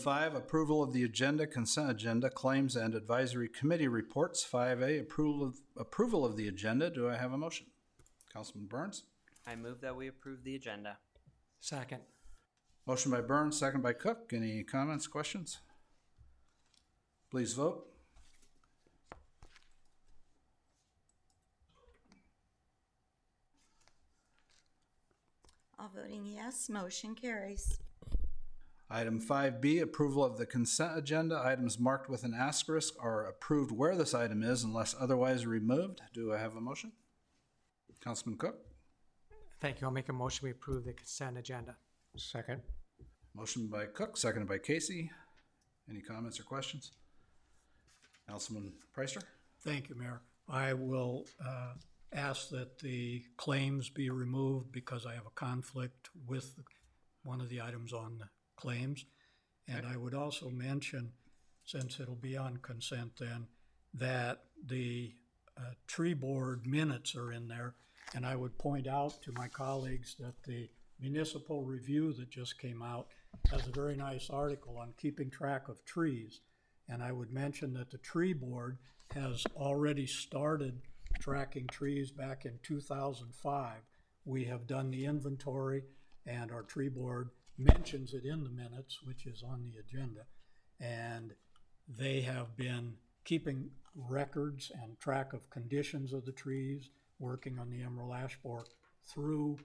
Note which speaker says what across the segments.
Speaker 1: Five, approval of the agenda, consent agenda, claims and advisory committee reports. Five A, approval of, approval of the agenda. Do I have a motion? Councilman Burns?
Speaker 2: I move that we approve the agenda.
Speaker 3: Second.
Speaker 1: Motion by Burns, second by Cook. Any comments, questions? Please vote.
Speaker 4: All voting yes, motion carries.
Speaker 1: Item five B, approval of the consent agenda. Items marked with an asterisk are approved where this item is unless otherwise removed. Do I have a motion? Councilman Cook?
Speaker 3: Thank you. I'll make a motion. We approve the consent agenda. Second.
Speaker 1: Motion by Cook, seconded by Casey. Any comments or questions? Councilman Preister?
Speaker 5: Thank you, Mayor. I will uh, ask that the claims be removed because I have a conflict with one of the items on the claims. And I would also mention, since it'll be on consent then, that the uh, tree board minutes are in there. And I would point out to my colleagues that the municipal review that just came out has a very nice article on keeping track of trees. And I would mention that the tree board has already started tracking trees back in two thousand five. We have done the inventory and our tree board mentions it in the minutes, which is on the agenda. And they have been keeping records and track of conditions of the trees, working on the emerald ash borer through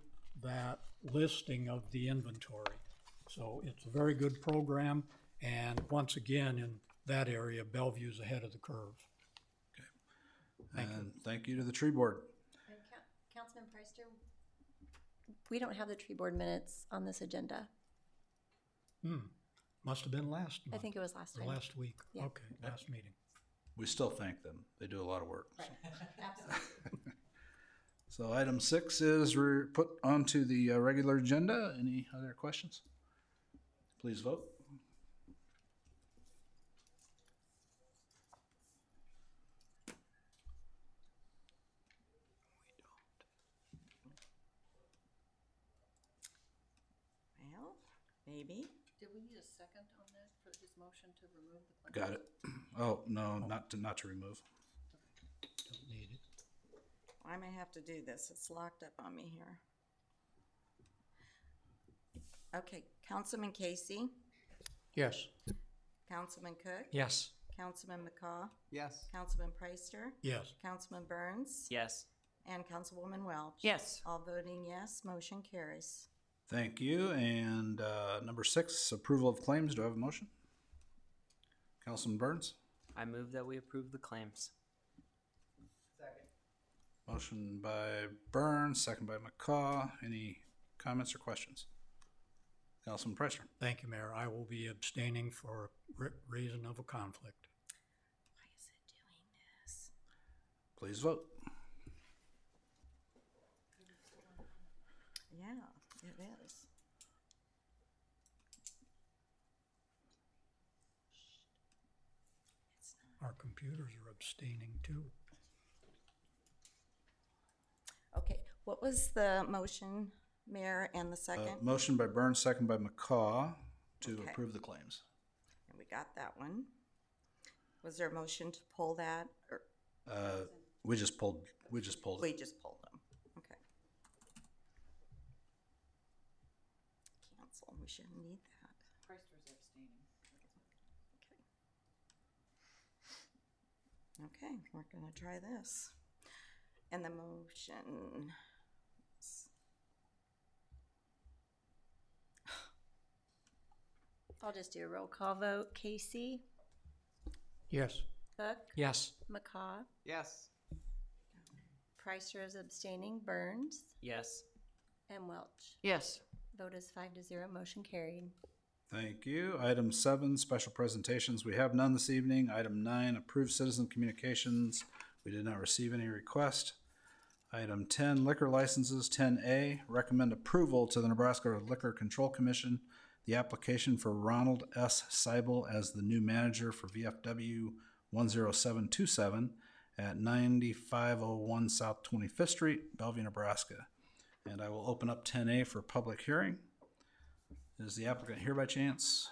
Speaker 5: that listing of the inventory. So it's a very good program, and once again, in that area, Bellevue's ahead of the curve.
Speaker 1: And thank you to the tree board.
Speaker 6: And Coun- Councilman Preister, we don't have the tree board minutes on this agenda.
Speaker 5: Hmm, must have been last
Speaker 6: I
Speaker 5: month,
Speaker 6: think it was last
Speaker 5: or
Speaker 6: time.
Speaker 5: last week,
Speaker 6: Yeah.
Speaker 5: okay, last meeting.
Speaker 1: We still thank them. They do a lot of work.
Speaker 6: Absolutely.
Speaker 1: So item six is re- put onto the uh, regular agenda. Any other questions? Please vote.
Speaker 4: Well, maybe.
Speaker 7: Did we need a second on that for his motion to remove the claim?
Speaker 1: Got it. Oh, no, not to, not to remove.
Speaker 5: Don't need it.
Speaker 4: I may have to do this. It's locked up on me here. Okay, Councilman Casey,
Speaker 5: Yes,
Speaker 4: Councilman Cook,
Speaker 3: Yes.
Speaker 4: Councilman McCaw,
Speaker 3: Yes.
Speaker 4: Councilman Preister,
Speaker 5: yes,
Speaker 4: Councilman Burns,
Speaker 2: Yes.
Speaker 4: and Councilwoman Welch.
Speaker 2: Yes.
Speaker 4: All voting yes, motion carries.
Speaker 1: Thank you. And uh, number six, approval of claims. Do I have a motion? Councilman Burns?
Speaker 2: I move that we approve the claims.
Speaker 1: Motion by Burns, second by McCaw. Any comments or questions? Councilman Preister?
Speaker 5: thank you, Mayor, I will be abstaining for re- reason of a conflict.
Speaker 4: Why is it doing this?
Speaker 1: Please vote.
Speaker 4: Yeah, it is.
Speaker 5: Our computers are abstaining too.
Speaker 4: Okay, what was the motion, Mayor, and the
Speaker 1: Uh,
Speaker 4: second?
Speaker 1: Motion by Burns, second by McCaw to
Speaker 4: Okay.
Speaker 1: approve the claims.
Speaker 4: And we got that one. Was there a motion to pull that, or
Speaker 1: Uh, We just pulled, we just pulled
Speaker 4: we
Speaker 1: it.
Speaker 4: just pulled them? Okay. Cancel, we shouldn't need that. Preister's abstaining. Okay, we're gonna try this. And the motion.
Speaker 6: I'll just do a roll call vote. Casey,
Speaker 5: Yes.
Speaker 6: Cook,
Speaker 3: Yes.
Speaker 6: McCaw,
Speaker 2: Yes.
Speaker 6: Preister is abstaining, Burns,
Speaker 2: Yes.
Speaker 6: and Welch.
Speaker 7: Yes.
Speaker 6: Vote is five to zero, motion carried.
Speaker 1: Thank you. Item seven, special presentations. We have none this evening. Item nine, approved citizen communications. We did not receive any request. Item ten, liquor licenses. Ten A, recommend approval to the Nebraska Liquor Control Commission. The application for Ronald S. Seibel as the new manager for VFW one zero seven two seven at ninety-five oh one South Twenty-Fifth Street, Bellevue, Nebraska. And I will open up ten A for public hearing. Is the applicant here by chance?